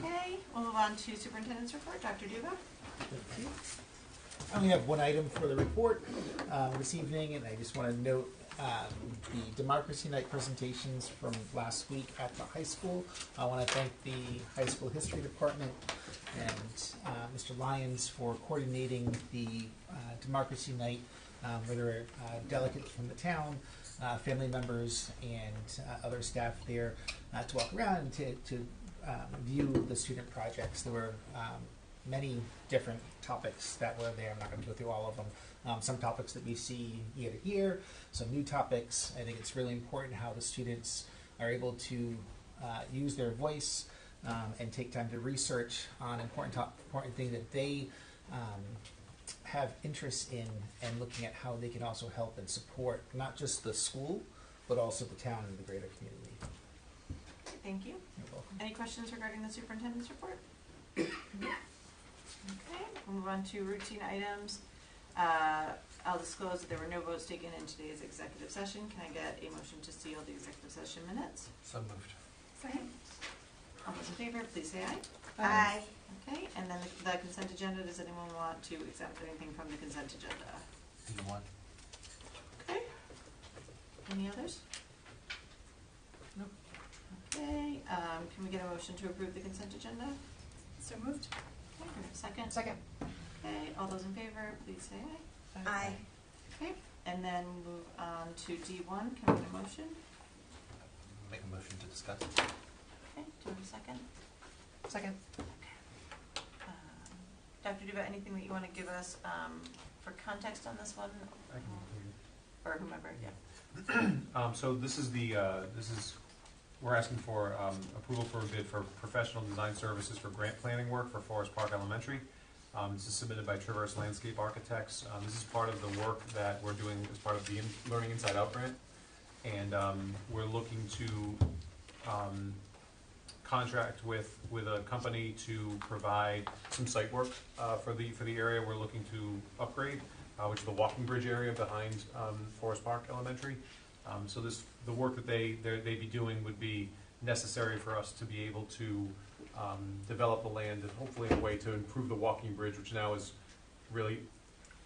Okay, we'll move on to superintendent's report. Dr. Duba? I only have one item for the report uh, this evening, and I just want to note um, the Democracy Night presentations from last week at the high school. I want to thank the high school history department and uh, Mr. Lyons for coordinating the uh, Democracy Night, um, where there were uh, delegates from the town, uh, family members, and uh, other staff there uh, to walk around and to, to um, view the student projects. There were um, many different topics that were there. I'm not going to go through all of them. Um, some topics that we see year to year, some new topics. I think it's really important how the students are able to uh, use their voice um, and take time to research on important top, important things that they um, have interest in, and looking at how they can also help and support not just the school, but also the town and the greater community. Thank you. You're welcome. Any questions regarding the superintendent's report? Okay, we'll move on to routine items. Uh, I'll disclose that there were no votes taken in today's executive session. Can I get a motion to seal the executive session minutes? So moved. Second. All those in favor, please say aye. Aye. Okay, and then the- the consent agenda, does anyone want to exempt anything from the consent agenda? D one. Okay. Any others? Nope. Okay, um, can we get a motion to approve the consent agenda? So moved. Okay, do we have a second? Second. Okay, all those in favor, please say aye. Aye. Okay, and then move on to D one, can we get a motion? Make a motion to discuss. Okay, do we have a second? Second. Um, Dr. Duba, anything that you wanna give us, um, for context on this one? Or whomever, yeah. Um, so this is the, uh, this is, we're asking for, um, approval for a bid for professional design services for grant planning work for Forest Park Elementary. Um, this is submitted by Traverse Landscape Architects. Um, this is part of the work that we're doing as part of the In- Learning Inside Out grant. And, um, we're looking to, um, contract with, with a company to provide some site work, uh, for the, for the area we're looking to upgrade, uh, which is the walking bridge area behind, um, Forest Park Elementary. Um, so this, the work that they, they're- they'd be doing would be necessary for us to be able to, um, develop the land and hopefully in a way to improve the walking bridge, which now is really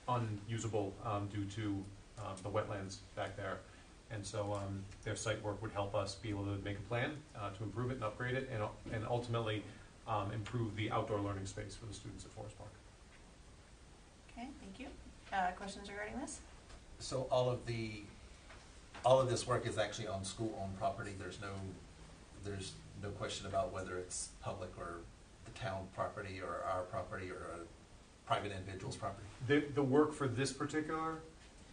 unusable, um, due to, um, the wetlands back there. And so, um, their site work would help us be able to make a plan, uh, to improve it and upgrade it and, u- and ultimately, um, improve the outdoor learning space for the students at Forest Park. Okay, thank you. Uh, questions regarding this? So all of the, all of this work is actually on school-owned property. There's no, there's no question about whether it's public or the town property or our property or a private individual's property. The, the work for this particular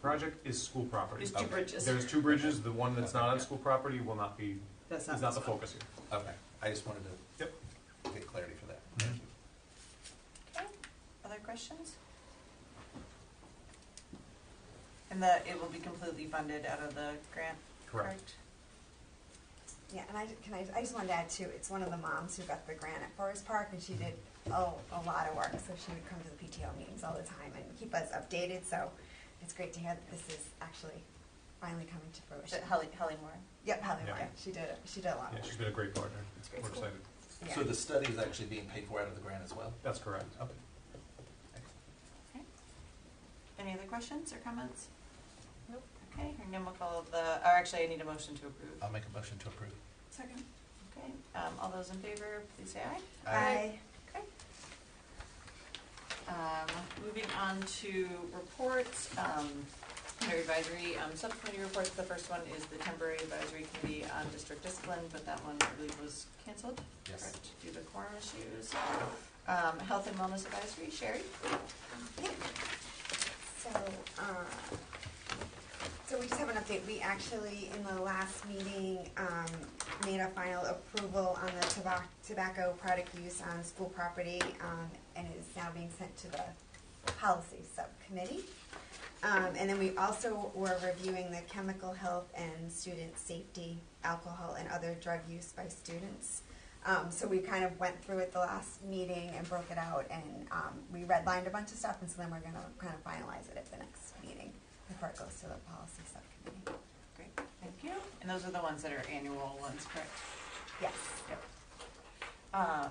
project is school property. There's two Okay. bridges. There's two bridges, the one that's not on school property will not be, That's is not the focus here. Okay, I just wanted to Yep. get clarity for that. Thank you. Okay, other questions? And that it will be completely funded out of the grant, correct? Yeah, and I, ju- can I, I just wanted to add too, it's one of the moms who got the grant at Forest Park and she did, oh, a lot of work, so she would come to the PTO meetings all the time and keep us updated, so it's great to hear that this is actually finally coming to Is it fruition. Holly, Holly Moore? Yep, Holly Yeah. Moore, she did, she did a lot Yeah, of she's work. been a great partner. great. We're excited. Yeah. So the study is actually being paid for out of the grant as well? That's correct. Okay. Any other questions or comments? Nope. Okay, hearing none, we'll call the, or actually, I need a motion to approve. I'll make a motion to approve. Second. Okay, um, all those in favor, please say aye. Aye. Um, moving on to reports, um, under advisory, um, subcommittee reports, the first one is the temporary advisory committee on district discipline, but that one, I believe, was canceled. Yes. correct, due to quorum issues. Um, health and wellness advisory, Sherry? So, uh, so we just have an update. We actually, in the last meeting, um, made a final approval on the tobacco, tobacco product use on school property, um, and it is now being sent to the policy subcommittee. Um, and then we also were reviewing the chemical health and student safety, alcohol and other drug use by students. Um, so we kind of went through it the last meeting and broke it out and, um, we redlined a bunch of stuff and so then we're gonna kind of finalize it at the next meeting before it goes to the policy subcommittee. Great, thank you. And those are the ones that are annual ones, correct? Yes. Yep. Um,